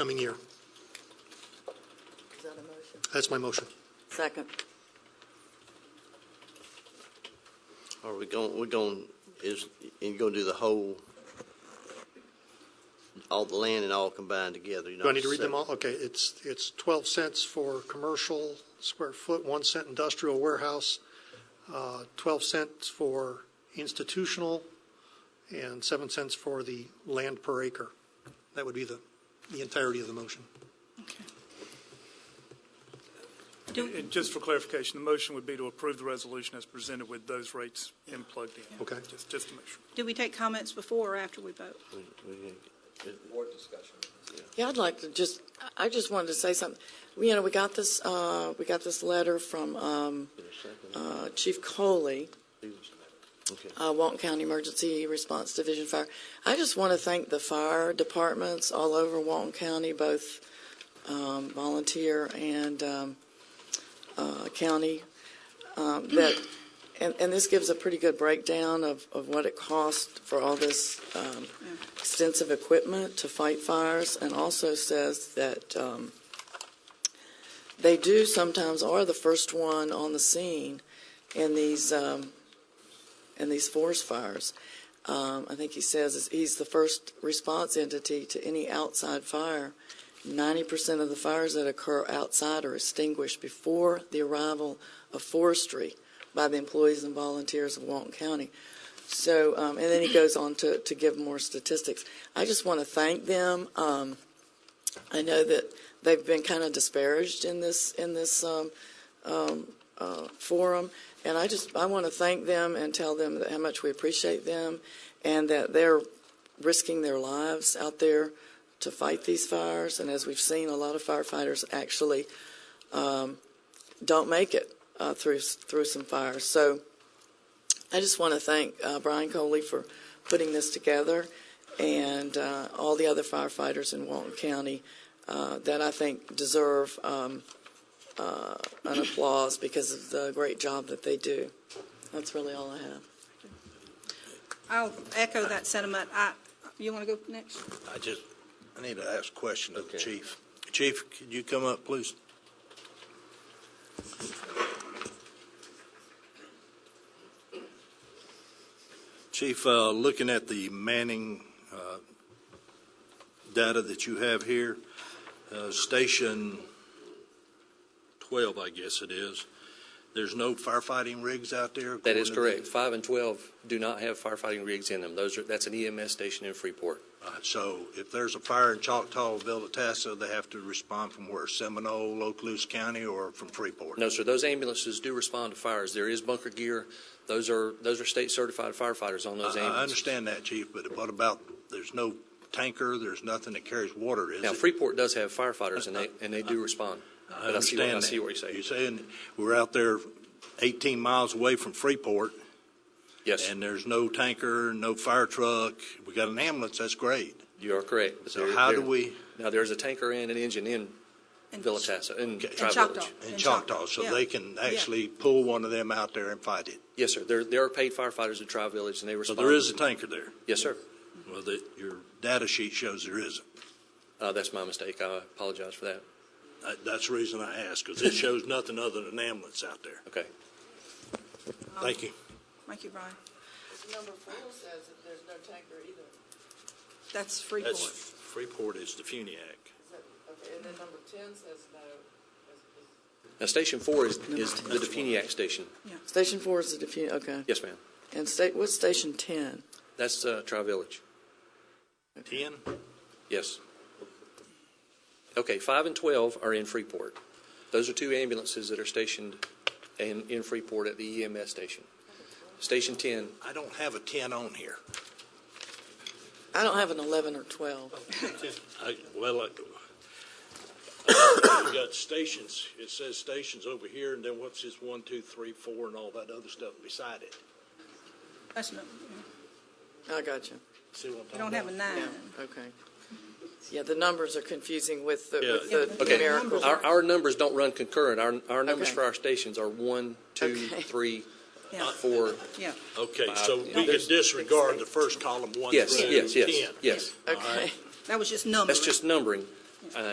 coming year. Is that a motion? That's my motion. Second. Are we going, we're going, is, you gonna do the whole, all the land and all combined together? Do I need to read them all? Okay, it's, it's 12 cents for commercial square foot, 1 cent industrial warehouse, uh, 12 cents for institutional, and 7 cents for the land per acre. That would be the, the entirety of the motion. And just for clarification, the motion would be to approve the resolution as presented with those rates in plugged in. Okay. Just, just to make sure. Do we take comments before or after we vote? Yeah, I'd like to just, I- I just wanted to say something. You know, we got this, uh, we got this letter from, um, uh, Chief Coley, uh, Walton County Emergency Response Division Fire. I just want to thank the fire departments all over Walton County, both, um, volunteer and, um, uh, county, um, that, and, and this gives a pretty good breakdown of, of what it cost for all this, um, extensive equipment to fight fires, and also says that um, they do sometimes are the first one on the scene in these um, in these forest fires. Um, I think he says is- he's the first response entity to any outside fire. Ninety percent of the fires that occur outside are extinguished before the arrival of forestry by the employees and volunteers of Walton County. So, um, and then he goes on to, to give more statistics. I just want to thank them. Um, I know that they've been kind of disparaged in this, in this, um, um, uh, forum. And I just, I want to thank them and tell them that how much we appreciate them and that they're risking their lives out there to fight these fires. And as we've seen, a lot of firefighters actually, um, don't make it, uh, through, through some fires. So, I just want to thank uh, Brian Coley for putting this together and uh, all the other firefighters in Walton County uh, that I think deserve um, uh, an applause because of the great job that they do. That's really all I have. I'll echo that sentiment. I, you want to go next? I just, I need to ask a question of the Okay. chief. Chief, could you come up, please? Chief, uh, looking at the Manning uh, data that you have here, uh, Station 12, I guess it is, there's no firefighting rigs out there? That is according correct. to the- Five and 12 do not have firefighting rigs in them. Those are, that's an EMS station in Freeport. Uh, So if there's a fire in Choctaw, Villatassa, they have to respond from where, Seminole, Okaloosa County, or from Freeport? No, sir, those ambulances do respond to fires. There is bunker gear. Those are, those are state-certified firefighters on I- those I ambulances. understand that, Chief, but what about, there's no tanker, there's nothing that carries water, is Now, it? Freeport does have firefighters, and they, and they do respond. I But I see what- understand I see that. what you're saying. You're saying we're out there 18 miles away from Freeport, Yes, and there's no tanker, no fire truck. We got an ambulance, that's great. you are correct. But So there- how there- do we, Now, there's a tanker and an engine in And- Villatassa, in Okay. And Tri-Village. Choctaw. in In Choctaw, Choctaw, so yeah. they can Yeah. actually pull one of them out there and fight it? Yes, sir. There, there are paid firefighters in Tri-Village, and they So respond. there is a tanker there? Yes, sir. Well, the, your data sheet shows there isn't. Uh, That's my mistake. I apologize for that. Uh, That's the reason I asked, because it shows nothing other than an ambulance out there. Okay. Oh. Thank you. um, Thank you, Brian. Number four says that there's no tanker either. That's That's, Freeport. Freeport is the Funiac. Okay, and then number ten says no. Now, Station 4 is, is the Defuniak station. Station four is the defu, okay. Yes, ma'am. And state, what's station ten? That's uh, Tri-Village. Ten? Yes. Okay, 5 and 12 are in Freeport. Those are two ambulances that are stationed in, in Freeport at the EMS station. Station 10, I don't have a ten on here. I don't have an eleven or twelve. I, well, I, you got stations, it says stations over here, and then what's this one, two, three, four, and all that other stuff beside it? That's no, I got you. See what I'm we talking don't have a about? Yeah, nine. okay. Yeah, the numbers are confusing with the, Yeah. with the okay. numerical. Our, our numbers don't run concurrent. Our, our numbers Okay. for our stations are one, two, Okay. three, Yeah, four. yeah. Okay, so Five. we can disregard the first column, one through Yes, ten. yes, yes, yes. Okay, That was just numbers. That's just numbering.